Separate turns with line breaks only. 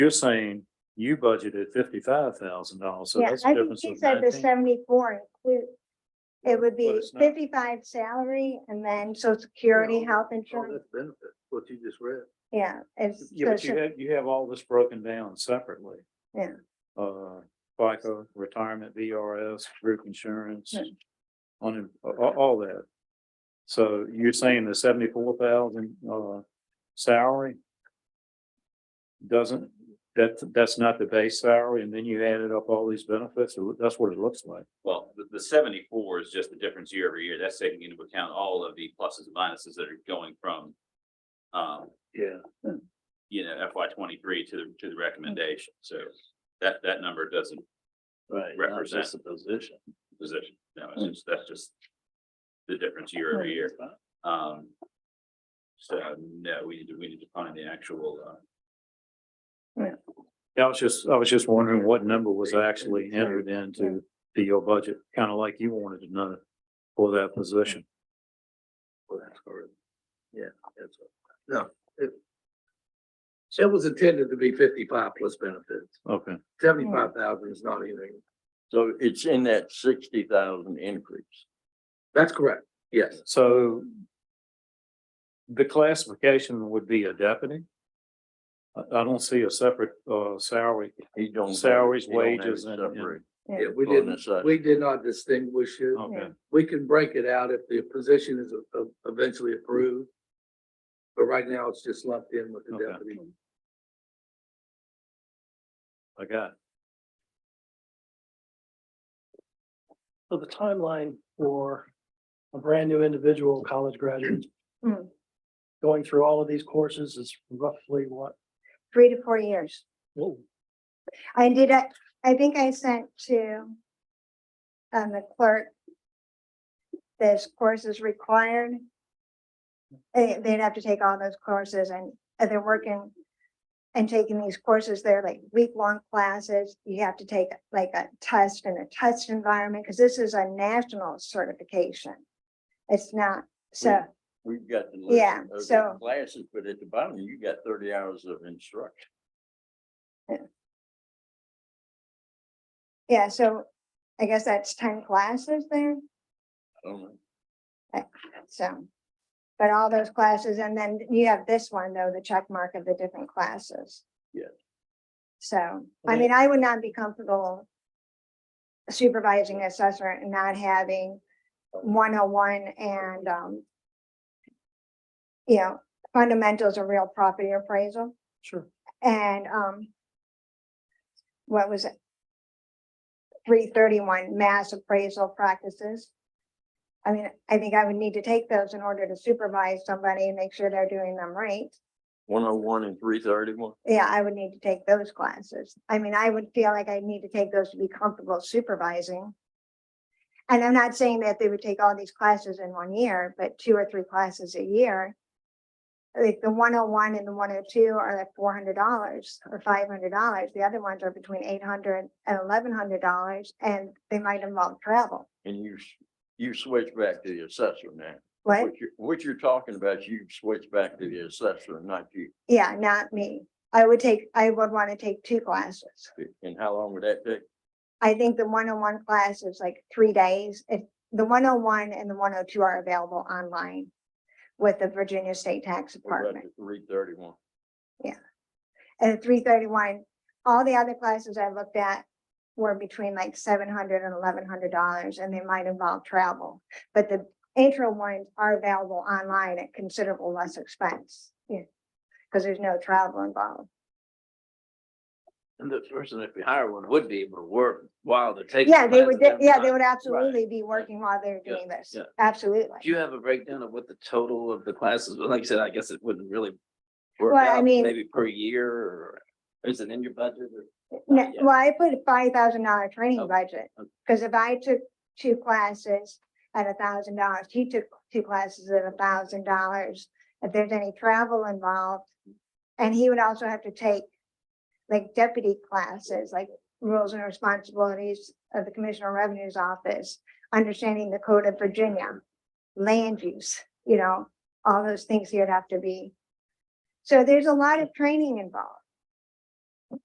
You're saying you budgeted fifty-five thousand dollars, so
Yeah,
that's a
I think
difference
she
of
said the
nineteen.
seventy-four include. It would
But
be
it's not.
fifty-five salary and then social security,
No,
health
Oh,
insurance,
that's benefit, what you just read.
yeah, it's.
Yeah, but
social-
you have, you have all this broken down separately.
Yeah.
Uh, FICA, retirement, VRS, group insurance,
Yeah. Hmm.
on, all, all that. So you're saying the seventy-four thousand, uh, salary? Doesn't, that, that's not the base salary, and then you added up all these benefits, so that's what it looks like.
Well, the, the seventy-four is just the difference year over year. That's taking into account all of the pluses and minuses that are going from, um,
Yeah.
you know, FY twenty-three to, the to the recommendation. So that, that number doesn't
Right.
not Represent. just
the position.
position. No,
Mm.
it's just, that's just the difference year over year. Um, so no, we need to, we need to find the actual, uh,
Yeah, I was just, I was just wondering what number was actually entered into to your budget, kind of like you wanted to know for that position.
Well, that's correct. Yeah, that's, right. no, it. It was intended to be fifty-five plus benefits.
Okay,
Seventy-five thousand is not anything.
So it's in that sixty thousand increase.
That's correct. Yes,
so the classification would be a deputy. I, I don't see a separate, uh, salary.
He don't. have it-
Salaries,
he don't have it
wages, and- and-
separate.
yeah, we
For
didn't,
necessity.
we did not distinguish it.
Oh.
Okay,
We can break it out if the position is e- e- eventually approved. But right now, it's just lumped in with the
Okay.
deputy.
I got it.
So the timeline for a brand new individual college graduate
Hmm.
going through all of these courses is roughly what?
Three to four years.
Whoa.
I did, I, I think I sent to um, the clerk. This course is required. They, they'd have to take all those courses and and they're working and taking these courses. They're like week-long classes. You have to take like a test in a test environment because this is a national certification. It's not, so,
We've got the. list
Yeah,
of the
so-
Classes, but at the bottom, you got thirty hours of instruction.
yeah, so I guess that's ten classes there.
I don't know.
So, but all those classes, and then you have this one, though, the check mark of the different classes.
Yeah.
So, I mean, I would not be comfortable supervising assessor and not having one oh one and, um, you know, fundamentals of real property appraisal
Sure.
and, um, what was it? Three thirty-one mass appraisal practices. I mean, I think I would need to take those in order to supervise somebody and make sure they're doing them right.
One oh one and three thirty-one.
Yeah, I would need to take those classes. I mean, I would feel like I need to take those to be comfortable supervising. And I'm not saying that they would take all these classes in one year, but two or three classes a year. Like the one oh one and the one oh two are like four hundred dollars or five hundred dollars. The other ones are between eight hundred and eleven hundred dollars and they might involve travel.
And you, s- you switch back to the assessor now.
What?
What you're, what you're talking about, you switch back to the assessor, not you.
Yeah, not me. I would take, I would want to take two classes.
And how long would that take?
I think the one-on-one class is like three days. If the one-on-one and the one-oh-two are available online with the Virginia State Tax Department.
Three thirty-one.
And three thirty-one, all the other classes I looked at were between like seven hundred and eleven hundred dollars, and they might involve travel. But the intro ones are available online at considerable less expense, yeah, because there's no travel involved.
And the person that we hire one would be able to work while they're taking.
Yeah, they would, de- yeah, they would absolutely be working while they're
Yeah,
doing this,
yeah. Do
absolutely.
you have a breakdown of what the total of the classes, well, like you said, I guess it wouldn't really
Well,
work
I
out,
mean-
maybe per year, or is it in your budget? or-
No,
yeah.
Well, I put a five thousand dollar training
Okay,
budget,
okay.
because if I took two classes at a thousand dollars, he took two classes at a thousand dollars. If there's any travel involved, and he would also have to take like deputy classes, like rules and responsibilities of the Commissioner of Revenue's Office, understanding the code of Virginia, land use, you know, all those things he'd have to be. So there's a lot of training involved.